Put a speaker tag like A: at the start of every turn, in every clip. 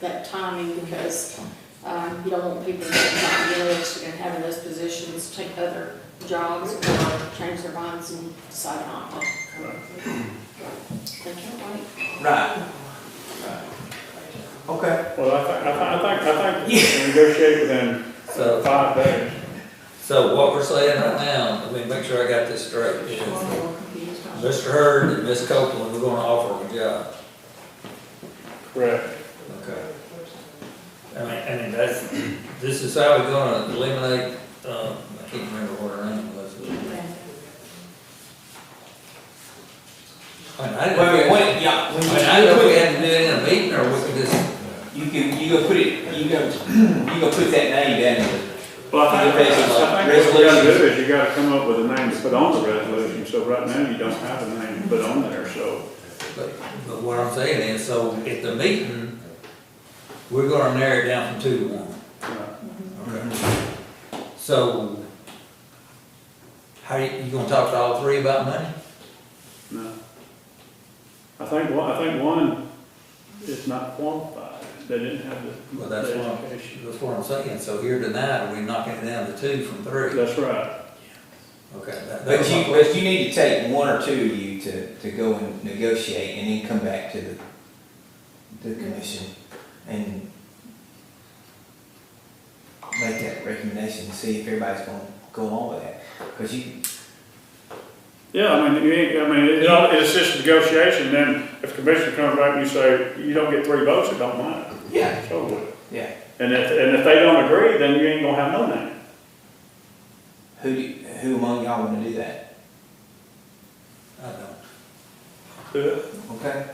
A: that timing because, um, you don't want people to get not engaged and having those positions take other jobs or change their minds and decide not to. They can't wait.
B: Right. Right. Okay,
C: Well, I think, I think, I think, I think negotiate within
B: so,
C: five days.
B: so what we're saying right now, let me make sure I got this straight. is Mr. Hurd and Ms. Copeland, we're gonna offer them a job.
C: Correct.
B: Okay. I mean, I mean, that's, this is how we're gonna eliminate, um, I can't remember what her name was. I mean, I didn't,
D: Wait, wait,
B: I
D: wait, yeah, when
B: mean,
D: you,
B: I didn't know we had to do it in a meeting, or we could just,
D: you can, you go put it, you go, you go put that name down there.
C: Well, I think, I think what we gotta do
D: Resolution.
C: is you gotta come up with a name to put on the resolution, so right now you don't have a name to put on there, so.
B: but, but what I'm saying is, so at the meeting, we're gonna narrow it down from two to one.
C: uh,
B: Okay. So, how, you you gonna talk to all three about money?
C: no. I think, one- I think one is not qualified, they didn't have the.
B: Well, that's
C: the
B: one.
C: education.
B: That's what I'm saying, so here tonight, we're knocking it down to two from three.
C: That's right,
B: Okay. that- that
D: But
B: was
D: you,
B: my-
D: but you need to take one or two of you to, to go and negotiate and then come back to the, the commission and make that recommendation and see if everybody's gonna go along with that. Cause you,
C: yeah, I mean, you ain't, I mean, it all, it's just negotiation, then if the commission comes back and you say, you don't get three votes, it don't matter,
D: yeah,
C: it's over with.
D: yeah,
C: And if, and if they don't agree, then you ain't gonna have no name.
D: who, do you- who among y'all wanna do that?
B: I don't.
C: Does
D: Okay?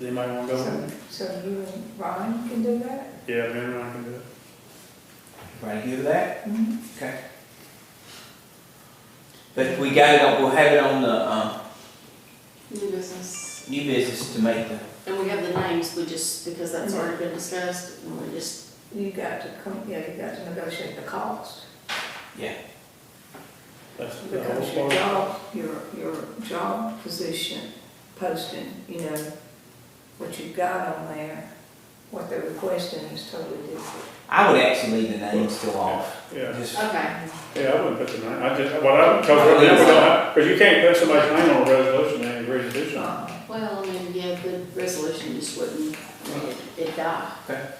C: anybody want to
E: So so you and Ron can do that?
C: Yeah, me and Ron can do it.
D: Everybody good with that?
E: Mm-hmm.
D: Okay. But we got it on, we'll have it on the, um,
A: New business.
D: new business to make the,
A: And we have the names, we just, because that's already been discussed, and we just,
E: You got to come, yeah, you got to negotiate the cost.
C: That's the
E: Because
C: whole
E: your
C: part.
E: job, your, your job position posting, you know, what you've got on there, what they're requesting is totally different.
D: I would actually leave the name still off.
C: Yeah,
D: Just-
A: okay.
C: yeah, I wouldn't put the name, I just, what I, because we don't have, because you can't put somebody's name on a resolution and agree to do something.
E: Uh,
A: Well, I mean, yeah, the resolution just wouldn't, I mean, it- it'd die.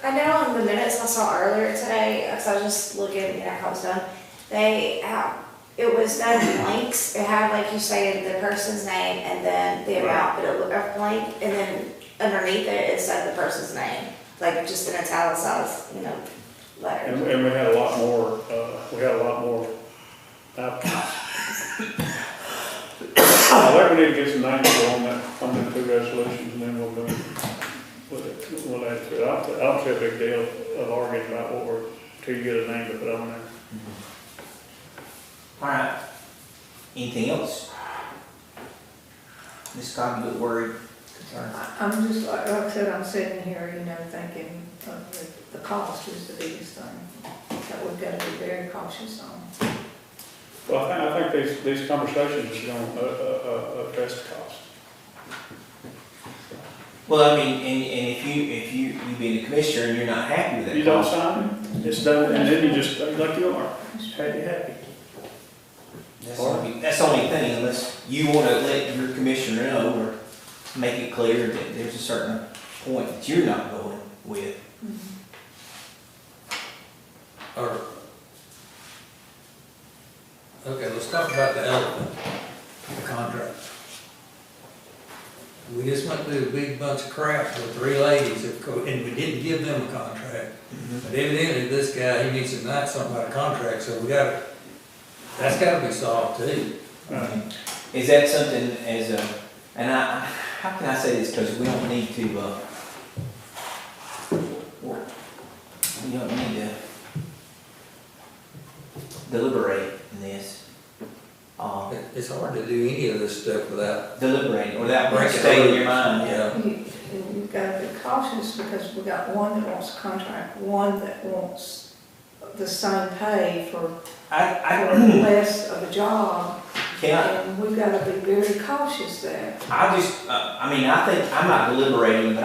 F: I know on the minutes I saw earlier today, because I was just looking at how it was done, they, uh, it was no blanks. It had, like you say, the person's name and then the amount, but it was a blank, and then underneath it, it said the person's name, like just an italicized, you know,
C: And,
F: letter.
C: and we had a lot more, uh, we had a lot more applicants. I think we need to get some names on that, on the two resolutions, and then we'll do, with it. we'll add to it. I don't, I don't see a big deal of arguing about what we're, till you get a name to put on there.
D: All right. Anything else? Ms. Cobb, you look worried, concerned.
E: I- I'm just, like like I said, I'm sitting here, you know, thinking of the, the cost is the biggest thing that we've got to be very cautious on.
C: Well, I think, I think these, these conversations is gonna, uh, uh, uh, address the cost.
D: Well, I mean, and, and if you, if you, you being a commissioner and you're not happy with that.
C: You don't
D: cost,
C: sign it, it's done, and then you just, like you are, happy, happy.
D: That's the only, that's the only thing, unless you wanna let your commissioner know or make it clear that there's a certain point that you're not going with.
B: Or, okay, let's talk about the elephant, the contract. We just went through a big bunch of crap with three ladies, that co- and we didn't give them a contract. But evidently, this guy, he needs to know something about a contract, so we gotta, that's gotta be solved too.
D: Is that something as a, and I, how can I say this, because we don't need to, uh, we don't need to deliberate in this, uh,
B: It- It's hard to do any of this stuff without,
D: deliberate, without
B: Break it
D: stating your
B: loose.
D: mind, yeah.
B: yeah.
E: You- You've got to be cautious because we got one that wants a contract, one that wants the same pay for
D: I,
E: for
D: I,
E: less of a job.
D: can I,
E: And we've got to be very cautious there.
D: I just, uh, I mean, I think, I'm not deliberating, but